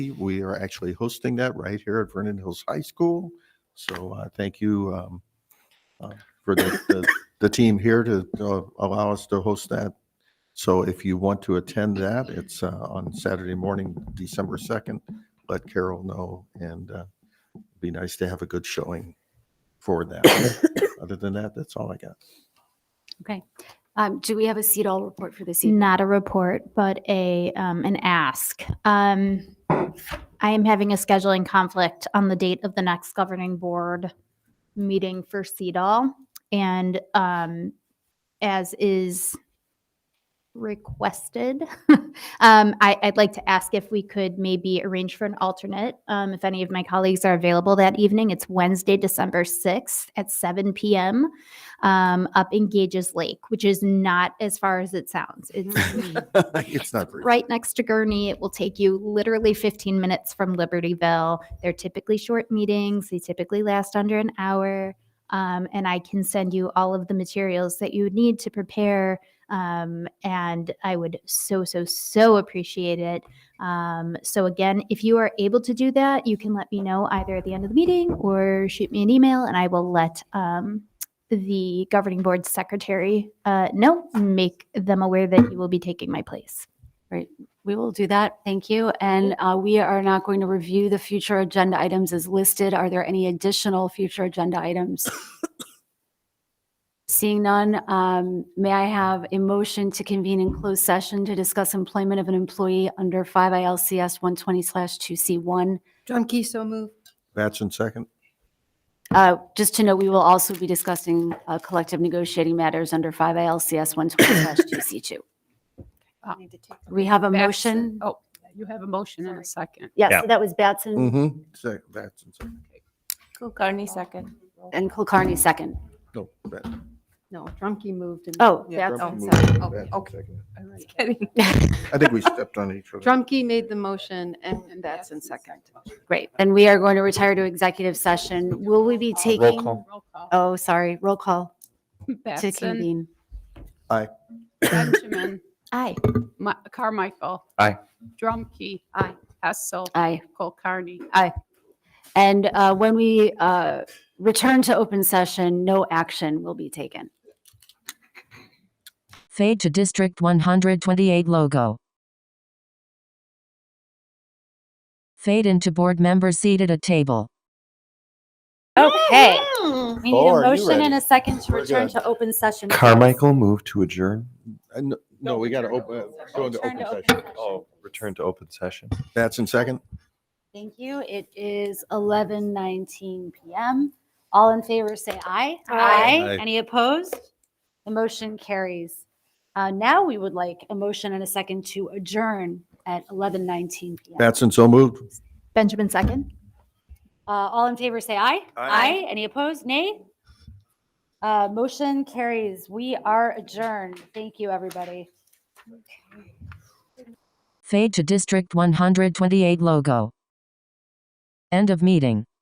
We are actually hosting that right here at Vernon Hills High School. So uh, thank you um, uh, for the, the- the team here to uh, allow us to host that. So if you want to attend that, it's uh, on Saturday morning, December 2nd. Let Carol know and uh, it'd be nice to have a good showing for that. Other than that, that's all I got. Um, do we have a seat all report for this evening? Not a report, but a, um, an ask. Um, I am having a scheduling conflict on the date of the next governing board meeting for CEDAW. And, um, as is requested, um, I, I'd like to ask if we could maybe arrange for an alternate. Um, if any of my colleagues are available that evening, it's Wednesday, December 6th at 7 PM um, up in Gages Lake, which is not as far as it sounds. It's It's not. very- right next to Gurney. It will take you literally 15 minutes from Libertyville. They're typically short meetings, they typically last under an hour. Um, and I can send you all of the materials that you would need to prepare. Um, and I would so, so, so appreciate it. Um, so, again, if you are able to do that, you can let me know either at the end of the meeting or shoot me an email, and I will let um, the governing board secretary uh, know, make them aware that you will be taking my place. We will do that. Thank you. And uh, we are not going to review the future agenda items as listed. Are there any additional future agenda items? Seeing none, um, may I have a motion to convene in closed session to discuss employment of an employee under 5 ILCS 120/2C1? Drumkey, so move. Batson second. Uh, Just to note, we will also be discussing uh, collective negotiating matters under 5 ALCS 120/2C2. Uh, We have a Batson. motion. Oh, you have a motion and a second. Yes, that was Batson Mm-hmm. Second, Batson second. Kulkarni second. and Kulkarni second. No. Bat- No, Drumkey moved. and- Oh, Yeah. Batson. Trump moved, sorry. Batson Oh, okay. second. Kidding. I think we stepped on each other. Drumkey made the motion and Batson second. Great. Then we are going to retire to executive session. Will we be taking? Roll call. Oh, sorry, roll call to Batson, convene. Benjamin, Aye. Ma- Carmichael. Aye. Drumkey. Aye. Hessel. Aye. Colcarney. And uh, when we uh, return to open session, no action will be taken. Fade to District 128 logo. Fade into board member seated at table. Okay. We need Oh, are a you motion and ready? a second to We're return good. to open session. Carmichael move to adjourn, Uh, no- No, we got to open, go into Return open to open session. oh, return to open session. Batson second. Thank you. It is 11:19 PM. All in favor, say aye. Aye. Any opposed? The motion carries. Uh, Now we would like a motion and a second to adjourn at 11:19 PM. Batson so moved. Benjamin second? Uh, All in favor, say aye. Aye. Any opposed? Nay? Uh, Motion carries. We are adjourned. Thank you, everybody. Fade to District 128 logo. End of meeting.